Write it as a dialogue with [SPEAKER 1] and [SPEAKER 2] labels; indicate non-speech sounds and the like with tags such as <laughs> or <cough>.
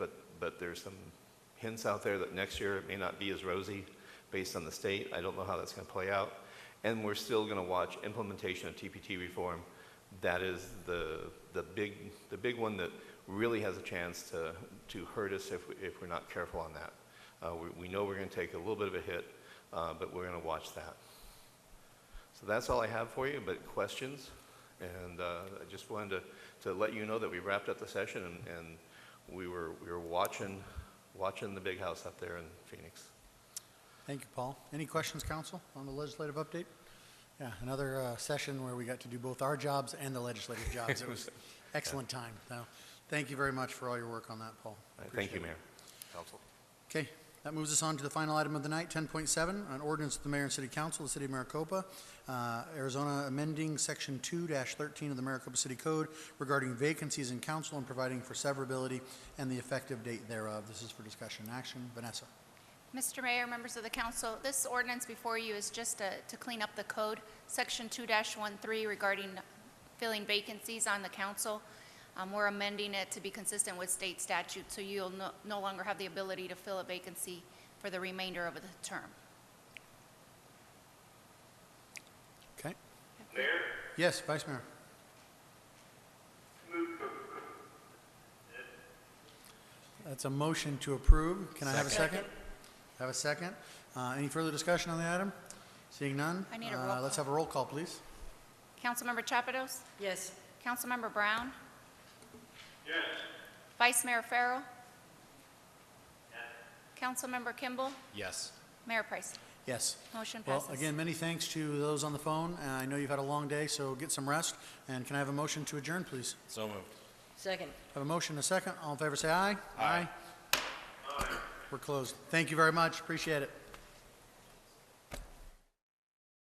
[SPEAKER 1] but there's some hints out there that next year it may not be as rosy based on the state. I don't know how that's going to play out. And we're still going to watch implementation of TPT reform. That is the, the big, the big one that really has a chance to, to hurt us if, we- if we're not careful on that. Uh, we, we know we're going to take a little bit of a hit, uh, but we're going to watch that. So that's all I have for you, but questions? And uh, I just wanted to, to let you know that we wrapped up the session and, and we were, we were watching, watching the big house up there in Phoenix.
[SPEAKER 2] Thank you, Paul. Any questions, council, on the legislative update? Yeah, another uh, session where we got to do both our jobs and
[SPEAKER 1] <laughs>
[SPEAKER 2] the legislative jobs. It was excellent time. So, thank you very much for all your work on that, Paul.
[SPEAKER 1] Uh, Thank you,
[SPEAKER 2] Appreciate it.
[SPEAKER 1] Mayor. Council.
[SPEAKER 2] Okay, that moves us on to the final item of the night, 10.7, an ordinance of the mayor and city council of the city of Maricopa, uh, Arizona amending section 2-13 of the Maricopa City Code regarding vacancies in council and providing for severability and the effective date thereof. This is for discussion and action. Vanessa.
[SPEAKER 3] Mr. Mayor, members of the council, this ordinance before you is just to to clean up the code, Section 2-13 regarding filling vacancies on the council. Um, We're amending it to be consistent with state statute, so you'll no no longer have the ability to fill a vacancy for the remainder of the term.
[SPEAKER 2] Okay.
[SPEAKER 4] Mayor,
[SPEAKER 2] Yes, Vice Mayor.
[SPEAKER 4] move to
[SPEAKER 2] That's a motion to approve. Can I have a second? Have a second. Uh, Any further discussion on the item? Seeing none?
[SPEAKER 3] I need a
[SPEAKER 2] uh,
[SPEAKER 3] roll
[SPEAKER 2] Let's have a roll call, please.
[SPEAKER 3] Councilmember Chapados?
[SPEAKER 5] Yes.
[SPEAKER 3] Councilmember Brown?
[SPEAKER 4] yes.
[SPEAKER 3] Vice Mayor Farrell? Councilmember Kimball?
[SPEAKER 6] Yes.
[SPEAKER 3] Mayor Price?
[SPEAKER 2] Yes.
[SPEAKER 3] Motion
[SPEAKER 2] Well,
[SPEAKER 3] passes.
[SPEAKER 2] again, many thanks to those on the phone. Uh, I know you've had a long day, so get some rest. And can I have a motion to adjourn, please?
[SPEAKER 6] So moved.
[SPEAKER 5] Second.
[SPEAKER 2] Have a motion, a second. All in favor, say aye.
[SPEAKER 6] Aye.
[SPEAKER 2] We're closed. Thank you very much. Appreciate it.